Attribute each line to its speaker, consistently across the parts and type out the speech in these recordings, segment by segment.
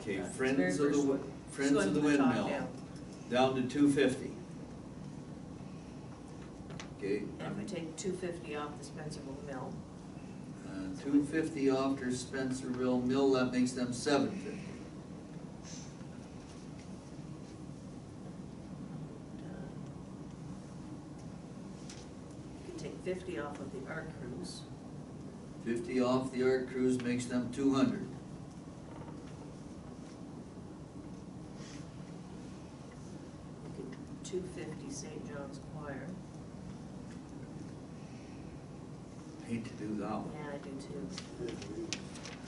Speaker 1: Okay,
Speaker 2: Yeah, it's very
Speaker 1: Friends of the, Wi-
Speaker 2: versatile.
Speaker 1: Friends of the
Speaker 2: Going from top
Speaker 1: Windmill,
Speaker 2: down.
Speaker 1: down to two fifty. Okay,
Speaker 2: And we take two fifty off the Spencerville mill.
Speaker 1: Uh, two fifty off to Spencerville Mill, that makes them seven fifty.
Speaker 2: We Take fifty off of the art cruise.
Speaker 1: Fifty off the art cruise makes them two hundred.
Speaker 2: We could two fifty St. John's Choir.
Speaker 1: Hate to do that
Speaker 2: Yeah,
Speaker 1: one.
Speaker 2: I do too.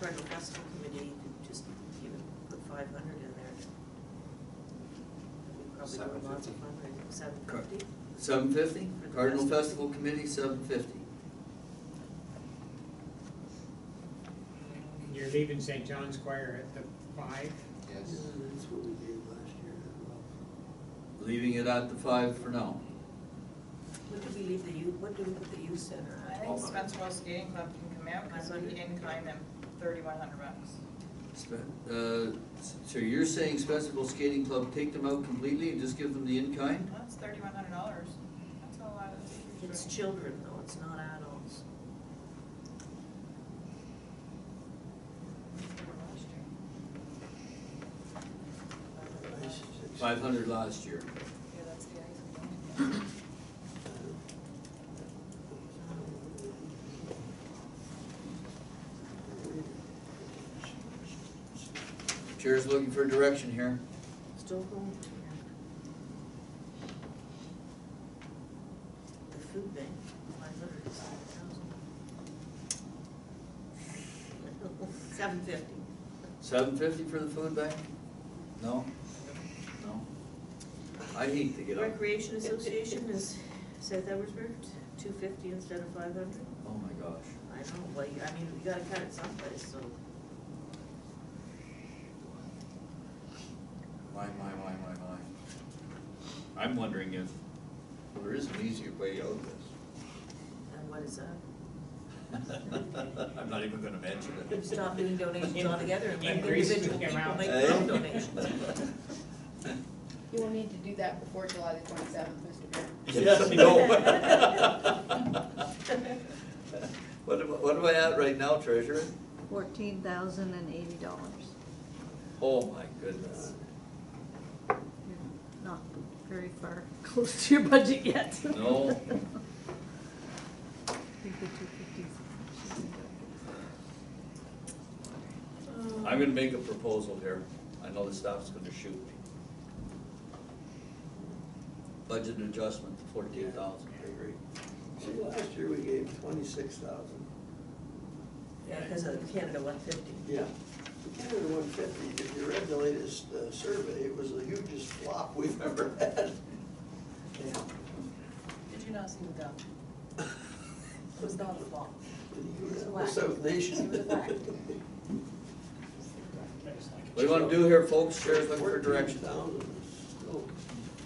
Speaker 2: Bridal Festival Committee, you could just even put five hundred in there. We probably do lots
Speaker 3: 750.
Speaker 2: of fundraising, seven
Speaker 1: Correct.
Speaker 2: fifty.
Speaker 1: Seven fifty,
Speaker 2: For the
Speaker 1: Cardinal Festival
Speaker 2: festival.
Speaker 1: Committee, seven fifty.
Speaker 4: You're leaving St. John's Choir at the five?
Speaker 3: Yes.
Speaker 5: that's what we did last year as well.
Speaker 1: Leaving it at the five for now.
Speaker 2: What do we leave the youth, what do we put the youth center
Speaker 6: I
Speaker 2: at?
Speaker 6: think Spencerville Skating Club can come out, because we in kind them thirty-one hundred bucks.
Speaker 1: Spe- uh, So you're saying Spencerville Skating Club, take them out completely and just give them the in-kind?
Speaker 6: That's thirty-one hundred dollars, that's a lot of
Speaker 2: It's
Speaker 6: teachers
Speaker 2: children though, it's not adults.
Speaker 5: I should-
Speaker 1: Five hundred last year.
Speaker 6: Yeah, that's the ice.
Speaker 1: Chair's looking for direction here.
Speaker 2: Still going to that. The food bank, five hundred and seven thousand. Seven fifty.
Speaker 1: Seven fifty for the food bank? No? No? I hate to get up.
Speaker 2: Recreation Association is South Edwardsburg, two fifty instead of five hundred.
Speaker 1: Oh my gosh.
Speaker 2: I know, well, you- I mean, you gotta cut it someplace, so.
Speaker 1: My, my, my, my, my. I'm wondering if there is an easier way out of
Speaker 2: And what is that?
Speaker 1: this. I'm not even gonna mention
Speaker 2: Stop doing donations altogether and let
Speaker 4: Increase the
Speaker 2: individual people
Speaker 4: amount.
Speaker 2: make their own donations.
Speaker 7: You will need to do that before July the twenty-seventh, Mr. Mayor.
Speaker 1: Yes, no. What am, I- what am I at right now, treasurer?
Speaker 8: fourteen thousand and eighty dollars.
Speaker 1: Oh, my goodness.
Speaker 8: Not very far close to your budget yet.
Speaker 1: No.
Speaker 8: I think the two fifties.
Speaker 1: I'm gonna make a proposal here. I know the staff's gonna shoot me. Budget adjustment to fourteen thousand.
Speaker 5: I agree. See, last year we gave twenty-six thousand.
Speaker 2: Yeah, because of Canada one fifty.
Speaker 5: Yeah. The Canada one fifty, if you read the latest uh, survey, it was the hugest flop we've ever had. Yeah.
Speaker 6: Did you not see the bill? It was not a fault.
Speaker 5: The South Nation.
Speaker 1: What do you wanna do here, folks? Sheriff's looking for direction.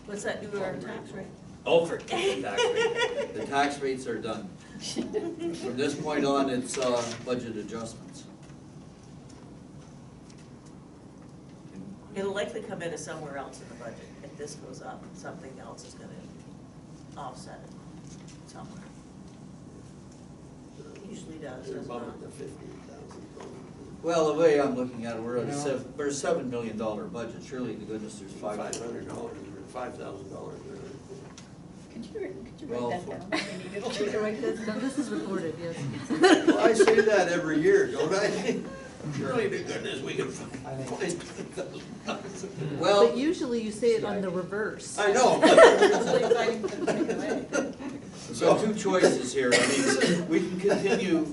Speaker 2: What's that do to our tax rate?
Speaker 1: Oh, for the tax rate. The tax rates are done. From this point on, it's, uh, budget adjustments.
Speaker 2: It'll likely come in as somewhere else in the budget. If this goes up, something else is gonna offset it somewhere. Usually does,
Speaker 5: They're
Speaker 2: does not.
Speaker 5: bumping to fifty thousand.
Speaker 1: Well, the way I'm looking at it, we're at a
Speaker 4: No.
Speaker 1: seven, we're a seven million dollar budget, surely to goodness there's five.
Speaker 5: Five hundred dollars, or five thousand dollars.
Speaker 7: Could you, could you
Speaker 1: Well,
Speaker 7: write that
Speaker 1: for-
Speaker 7: down? We need it.
Speaker 8: Should I write this down? This is recorded, yes.
Speaker 5: Well, I say that every year, don't I? Surely to goodness, we can find $5,000.
Speaker 1: Well,
Speaker 8: But usually you say it on the reverse.
Speaker 5: I know.
Speaker 6: Usually fighting for the take away.
Speaker 1: so two choices here, I mean, we can continue,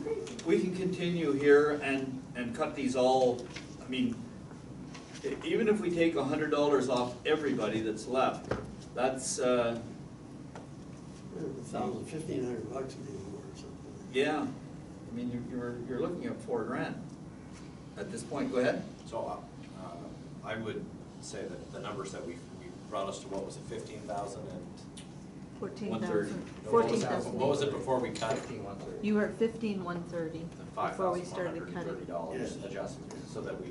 Speaker 1: we can continue here and, and cut these all, I mean, e- even if we take a hundred dollars off everybody that's left, that's, uh,
Speaker 5: Thousand, fifteen hundred bucks maybe more or something.
Speaker 1: yeah, I mean, you're- you're, you're looking at four grand at this point, go ahead.
Speaker 3: So, uh, uh, I would say that the numbers that we, we brought us to, what was it, fifteen thousand and?
Speaker 8: Fourteen
Speaker 1: One-third.
Speaker 8: thousand,
Speaker 3: no, what
Speaker 8: fourteen
Speaker 3: was that- What was
Speaker 8: thousand.
Speaker 3: it before we cut?
Speaker 8: You were at fifteen one thirty before we started
Speaker 3: Five thousand one hundred and thirty
Speaker 8: cutting.
Speaker 3: dollars
Speaker 5: Yeah.
Speaker 3: adjustment, so that we